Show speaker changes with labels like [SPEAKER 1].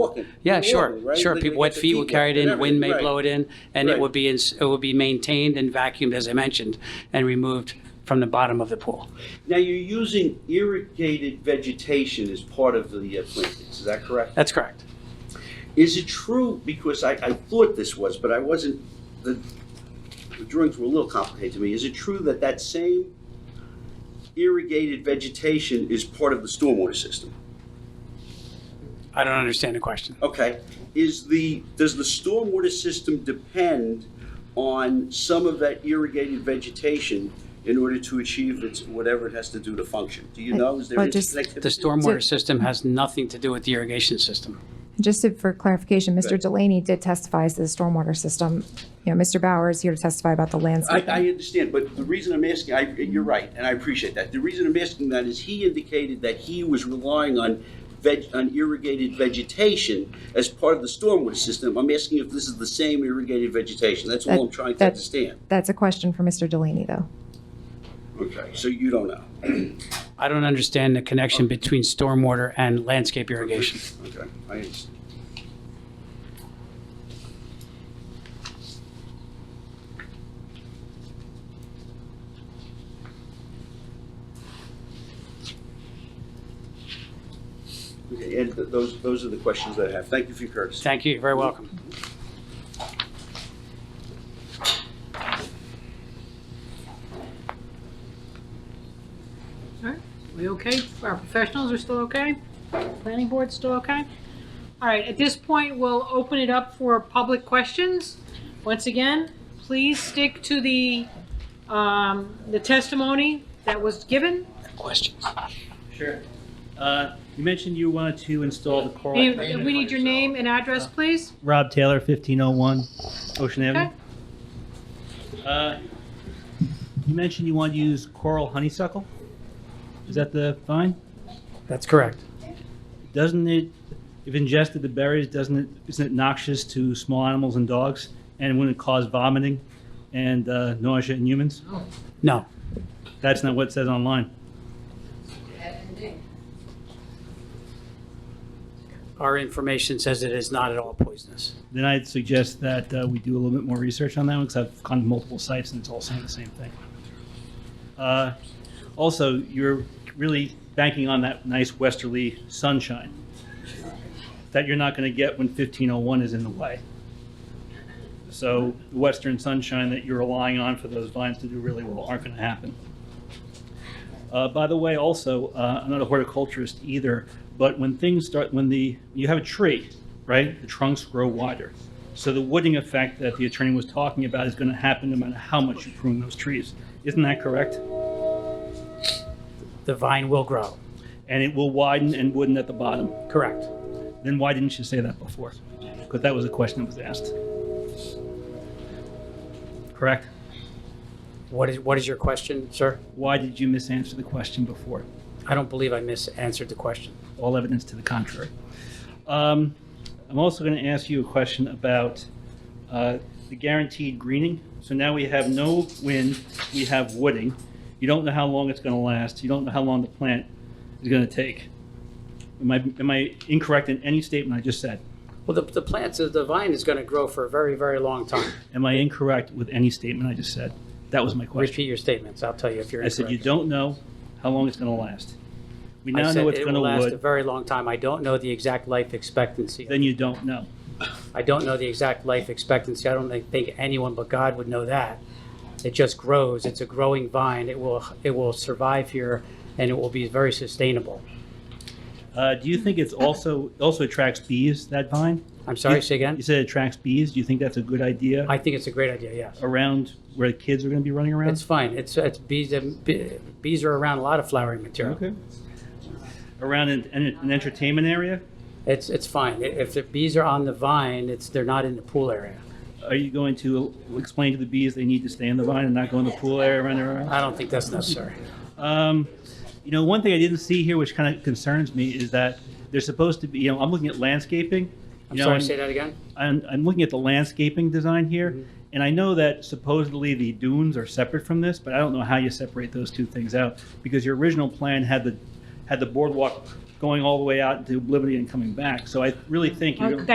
[SPEAKER 1] walking.
[SPEAKER 2] Yeah,
[SPEAKER 1] They're
[SPEAKER 2] sure,
[SPEAKER 1] walking, right?
[SPEAKER 2] sure.
[SPEAKER 1] They-
[SPEAKER 2] People,
[SPEAKER 1] they
[SPEAKER 2] wet
[SPEAKER 1] get the
[SPEAKER 2] feet will carry it
[SPEAKER 1] wet,
[SPEAKER 2] in, wind may
[SPEAKER 1] right.
[SPEAKER 2] blow it in, and it
[SPEAKER 1] Right.
[SPEAKER 2] would be, ins- it would be maintained and vacuumed, as I mentioned, and removed from the bottom of the pool.
[SPEAKER 1] Now, you're using irrigated vegetation as part of the uh, plantings, is that correct?
[SPEAKER 2] That's correct.
[SPEAKER 1] Is it true, because I, I thought this was, but I wasn't, the, the drawings were a little complicated to me. Is it true that that same irrigated vegetation is part of the stormwater system?
[SPEAKER 2] I don't understand the question.
[SPEAKER 1] Okay, is the, does the stormwater system depend on some of that irrigated vegetation in order to achieve its, whatever it has to do to function? Do you know, is there
[SPEAKER 3] Well, just-
[SPEAKER 1] interconnectivity?
[SPEAKER 2] The stormwater system has nothing to do with the irrigation system.
[SPEAKER 3] Just to- for clarification, Mr.
[SPEAKER 1] Right.
[SPEAKER 3] Delaney did testify as to the stormwater system. You know, Mr. Bauer is here to testify about the
[SPEAKER 1] I,
[SPEAKER 3] landscape.
[SPEAKER 1] I understand, but the reason I'm asking, I, you're right, and I appreciate that. The reason I'm asking that is he indicated that he was relying on veg, on irrigated vegetation as part of the stormwater system. I'm asking if this is the same irrigated vegetation. That's all
[SPEAKER 3] That-
[SPEAKER 1] I'm trying to
[SPEAKER 3] that-
[SPEAKER 1] understand.
[SPEAKER 3] That's a question for Mr. Delaney, though.
[SPEAKER 1] Okay, so you don't know.
[SPEAKER 2] I don't understand the connection between stormwater and landscape irrigation.
[SPEAKER 1] Okay, I understand. Okay, Ed, th- those, those are the questions that I have. Thank you for your courtesy.
[SPEAKER 2] Thank you, you're very welcome.
[SPEAKER 4] All right, we okay? Our professionals are still okay? Planning board's still okay? All right, at this point, we'll open it up for public questions. Once again, please stick to the, um, the testimony that was given.
[SPEAKER 2] Questions?
[SPEAKER 5] Sure. Uh, You mentioned you wanted to install the coral.
[SPEAKER 4] We we need your name and address, please.
[SPEAKER 5] Rob Taylor, 1501 Ocean Avenue. Uh, You mentioned you want to use coral honeysuckle. Is that the vine?
[SPEAKER 2] That's correct.
[SPEAKER 5] Doesn't it, if ingested, the berries, doesn't it, isn't it noxious to small animals and dogs? And wouldn't it cause vomiting and uh, nausea in humans?
[SPEAKER 2] No,
[SPEAKER 5] That's not what it says online.
[SPEAKER 2] our information says it is not at all poisonous.
[SPEAKER 5] Then I'd suggest that uh, we do a little bit more research on that one, because I've gone to multiple sites and it's all saying the same thing. Uh, Also, you're really banking on that nice westerly sunshine that you're not going to get when 1501 is in the way. So the western sunshine that you're relying on for those vines to do really well aren't going to happen. Uh, by the way, also, uh, I'm not a horticulturist either, but when things start, when the, you have a tree, right, the trunks grow wider. So the wooding effect that the attorney was talking about is going to happen no matter how much you prune those trees. Isn't that correct?
[SPEAKER 2] The vine will grow,
[SPEAKER 5] And it will widen and wooden at the bottom.
[SPEAKER 2] correct.
[SPEAKER 5] Then why didn't you say that before? Because that was a question that was asked. Correct?
[SPEAKER 2] What is, what is your question, sir?
[SPEAKER 5] Why did you misanswer the question before?
[SPEAKER 2] I don't believe I misanswered the question.
[SPEAKER 5] all evidence to the contrary. Um, I'm also going to ask you a question about uh, the guaranteed greening. So now we have no wind, we have wooding. You don't know how long it's going to last. You don't know how long the plant is going to take. Am I, am I incorrect in any statement I just said?
[SPEAKER 2] Well, the, the plants, the vine is going to grow for a very, very long time.
[SPEAKER 5] Am I incorrect with any statement I just said? That was my question.
[SPEAKER 2] Repeat your statements. I'll tell you if you're
[SPEAKER 5] I said you
[SPEAKER 2] incorrect.
[SPEAKER 5] don't know how long it's going to last. We
[SPEAKER 2] I
[SPEAKER 5] now
[SPEAKER 2] said
[SPEAKER 5] know it's
[SPEAKER 2] it
[SPEAKER 5] going to
[SPEAKER 2] will last a
[SPEAKER 5] wood.
[SPEAKER 2] very long time. I don't know the exact life expectancy.
[SPEAKER 5] Then you don't know.
[SPEAKER 2] I don't know the exact life expectancy. I don't think anyone but God would know that. It just grows. It's a growing vine. It will, it will survive here and it will be very sustainable.
[SPEAKER 5] Uh, do you think it's also also attracts bees that vine?
[SPEAKER 2] I'm sorry, say again?
[SPEAKER 5] You said it attracts bees. Do you think that's a good idea
[SPEAKER 2] I think it's a great idea, yes.
[SPEAKER 5] around where the kids are going to be running around?
[SPEAKER 2] It's fine. It's, it's bees, bee- bees are around a lot of flowering material.
[SPEAKER 5] okay. Around an, an, an entertainment area?
[SPEAKER 2] It's, it's fine. I- If the bees are on the vine, it's, they're not in the pool area.
[SPEAKER 5] Are you going to explain to the bees they need to stay in the vine and not go in the pool area running around?
[SPEAKER 2] I don't think that's necessary.
[SPEAKER 5] Um, you know, one thing I didn't see here, which kind of concerns me, is that they're supposed to be. You know, I'm looking at landscaping.
[SPEAKER 2] I'm
[SPEAKER 5] you know,
[SPEAKER 2] sorry,
[SPEAKER 5] and-
[SPEAKER 2] say that again?
[SPEAKER 5] I'm, I'm looking at the landscaping design here, and I know that supposedly the dunes are separate from this, but I don't know how you separate those two things out, because your original plan had the, had the boardwalk going all the way out into oblivion and coming back. So I really think you're.
[SPEAKER 4] Okay.